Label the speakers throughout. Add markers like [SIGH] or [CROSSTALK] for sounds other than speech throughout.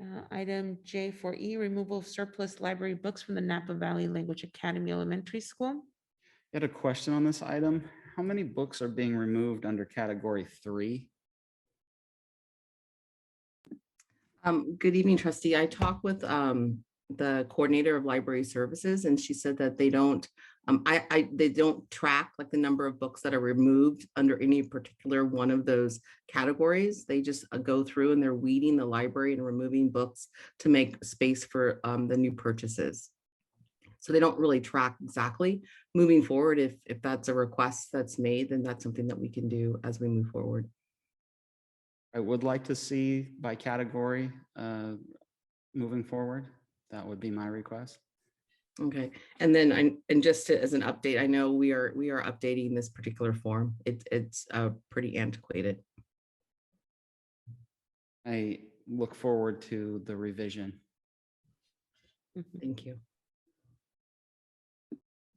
Speaker 1: Uh, Item J four E, removal of surplus library books from the Napa Valley Language Academy Elementary School.
Speaker 2: Had a question on this item. How many books are being removed under category three?
Speaker 3: Um, good evening, trustee. I talked with, um, the coordinator of library services and she said that they don't, um, I, I, they don't track like the number of books that are removed under any particular one of those categories. They just uh, go through and they're weeding the library and removing books to make space for, um, the new purchases. So they don't really track exactly. Moving forward, if, if that's a request that's made, then that's something that we can do as we move forward.
Speaker 2: I would like to see by category uh, moving forward. That would be my request.
Speaker 3: Okay, and then I, and just to- as an update, I know we are, we are updating this particular form. It, it's uh, pretty antiquated.
Speaker 2: I look forward to the revision.
Speaker 1: Mhm.
Speaker 3: Thank you.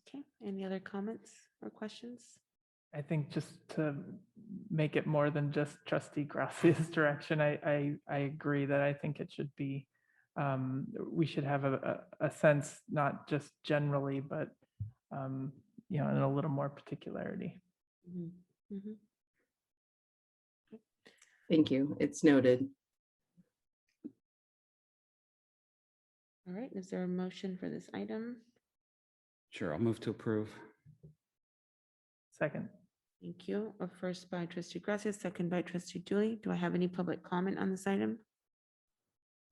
Speaker 1: Okay, any other comments or questions?
Speaker 4: I think just to make it more than just trustee Gracia's [LAUGHS] direction, I, I, I agree that I think it should be, um, we should have a, a, a sense, not just generally, but, um, you know, in a little more particularity.
Speaker 1: Mhm, mhm.
Speaker 3: Thank you. It's noted.
Speaker 1: All right, is there a motion for this item?
Speaker 2: Sure, I'll move to approve.
Speaker 4: Second,
Speaker 1: Thank you. A first by trustee Gracia, second by trustee Dooley. Do I have any public comment on this item?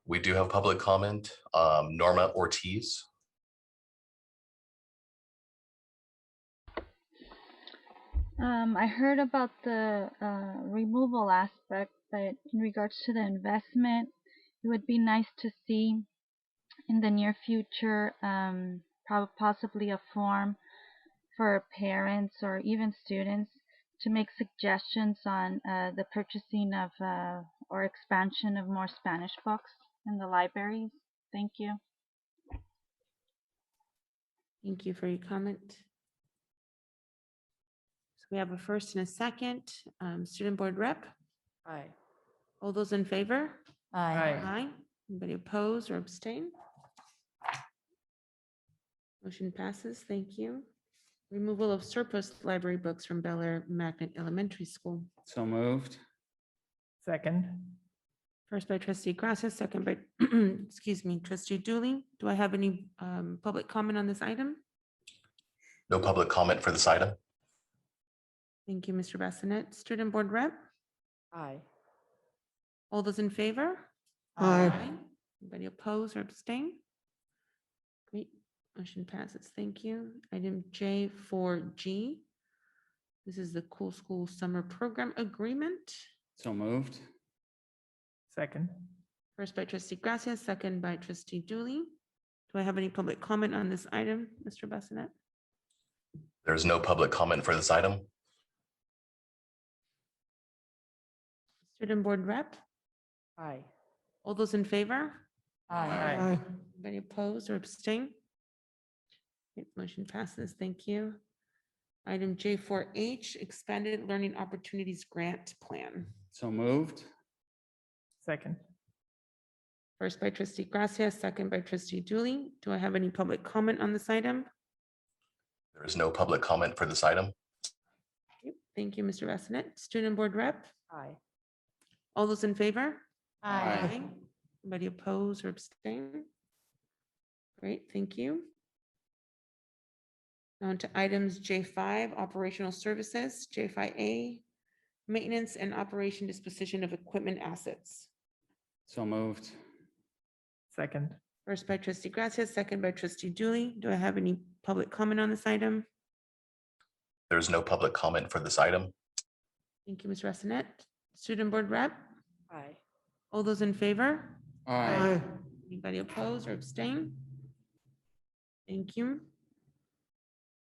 Speaker 5: We do have public comment. Um, Norma Ortiz.
Speaker 6: Um, I heard about the uh, removal aspect, but in regards to the investment, it would be nice to see in the near future, um, prob- possibly a form for parents or even students to make suggestions on uh, the purchasing of uh, or expansion of more Spanish books in the libraries. Thank you.
Speaker 1: Thank you for your comment. So we have a first and a second. Um, Student Board Rep,
Speaker 7: Aye.
Speaker 1: all those in favor?
Speaker 4: Aye.
Speaker 1: Aye. Anybody oppose or abstain? Motion passes. Thank you. Removal of surplus library books from Bel Air Magnet Elementary School.
Speaker 2: So moved.
Speaker 4: second,
Speaker 1: First by trustee Gracia, second by, [CLEARS THROAT] excuse me, trustee Dooley. Do I have any um, public comment on this item?
Speaker 5: No public comment for this item.
Speaker 1: Thank you, Mr. Bassinet. Student Board Rep,
Speaker 7: Aye.
Speaker 1: all those in favor?
Speaker 7: Aye.
Speaker 1: Aye. Anybody oppose or abstain? Great, motion passes. Thank you. Item J four G. This is the Cool School Summer Program Agreement.
Speaker 2: So moved.
Speaker 4: second,
Speaker 1: First by trustee Gracia, second by trustee Dooley. Do I have any public comment on this item, Mr. Bassinet?
Speaker 5: There is no public comment for this item.
Speaker 1: Student Board Rep,
Speaker 7: Aye.
Speaker 1: all those in favor?
Speaker 4: Aye.
Speaker 1: Anybody opposed or abstain? Great, Motion passes. Thank you. Item J four H, Expanded Learning Opportunities Grant Plan.
Speaker 2: So moved.
Speaker 4: second,
Speaker 1: First by trustee Gracia, second by trustee Dooley. Do I have any public comment on this item?
Speaker 5: There is no public comment for this item.
Speaker 1: Yep, Thank you, Mr. Bassinet. Student Board Rep,
Speaker 7: Aye.
Speaker 1: all those in favor?
Speaker 2: Aye.
Speaker 1: Anybody oppose or abstain? Great, thank you. On to items J5, operational services, J5A, maintenance and operation disposition of equipment assets.
Speaker 2: So moved.
Speaker 4: second,
Speaker 1: First by trustee Gracia, second by trustee Dooley. Do I have any public comment on this item?
Speaker 5: There is no public comment for this item.
Speaker 1: Thank you, Ms. Rassinet. Student Board Rep,
Speaker 7: Aye.
Speaker 1: all those in favor?
Speaker 2: Aye.
Speaker 1: Anybody oppose or abstain? Thank you.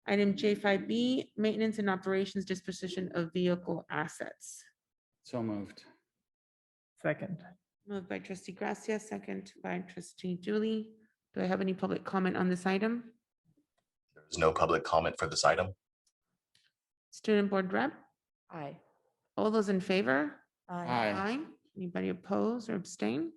Speaker 1: Item J five B, maintenance and operations disposition of vehicle assets.
Speaker 2: So moved.
Speaker 4: second,
Speaker 1: Moved by trustee Gracia, second by trustee Dooley. Do I have any public comment on this item?
Speaker 5: There is no public comment for this item.
Speaker 1: Student board rep,
Speaker 7: Aye.
Speaker 1: all those in favor?
Speaker 2: Aye.
Speaker 1: Anybody oppose or abstain?